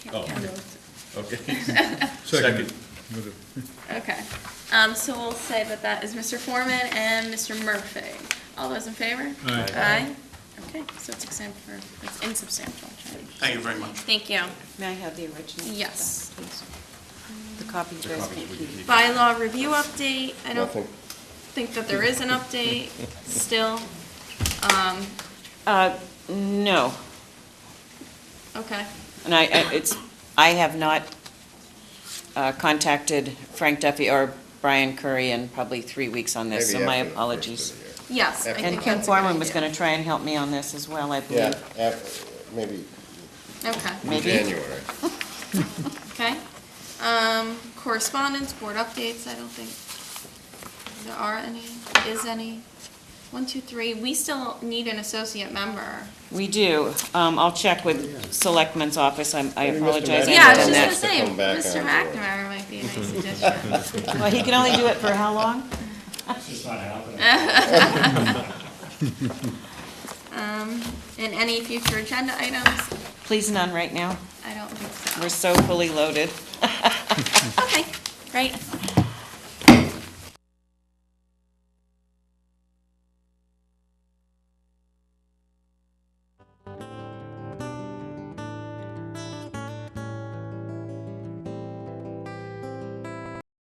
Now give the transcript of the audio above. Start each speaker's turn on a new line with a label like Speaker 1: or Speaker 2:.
Speaker 1: Oh, okay. Second.
Speaker 2: Okay, um, so we'll say that that is Mr. Foreman and Mr. Murphy. All those in favor?
Speaker 3: Aye.
Speaker 2: Aye? Okay, so it's exempt for, it's insubstantial change.
Speaker 4: Thank you very much.
Speaker 2: Thank you.
Speaker 5: May I have the original?
Speaker 2: Yes.
Speaker 5: back, please? The copy you guys can keep.
Speaker 2: Bylaw review update, I don't
Speaker 1: Nothing.
Speaker 2: think that there is an update still. Um,
Speaker 5: Uh, no,
Speaker 2: okay,
Speaker 5: and I, I- it's, I have not uh, contacted Frank Duffy or Brian Curry in probably three weeks on this, so
Speaker 1: Maybe
Speaker 5: my
Speaker 1: after the first
Speaker 5: apologies.
Speaker 1: of the year.
Speaker 2: yes. I
Speaker 1: And
Speaker 2: think
Speaker 5: And Kim
Speaker 2: that's a good
Speaker 5: Foreman was
Speaker 2: idea.
Speaker 5: gonna try and help me on this as well, I believe.
Speaker 1: Yeah, af- maybe
Speaker 2: Okay,
Speaker 5: Maybe.
Speaker 1: January.
Speaker 2: okay. Um, correspondence, board updates, I don't think there are any, is any. One, two, three, we still need an associate member.
Speaker 5: We do, um, I'll check with Selectman's office, I'm- I
Speaker 1: Maybe Mr.
Speaker 5: apologize. I
Speaker 1: Mackey
Speaker 2: Yeah, I was
Speaker 5: haven't
Speaker 2: just
Speaker 5: done
Speaker 2: gonna
Speaker 1: Has
Speaker 5: that.
Speaker 1: to
Speaker 2: say,
Speaker 1: come
Speaker 2: Mr.
Speaker 1: back onto it.
Speaker 2: McNamara might be a nice addition.
Speaker 5: Well, he can only do it for how long?
Speaker 2: Um, and any future agenda items?
Speaker 5: Please none right now,
Speaker 2: I don't think so.
Speaker 5: we're so fully loaded.
Speaker 2: Okay, great.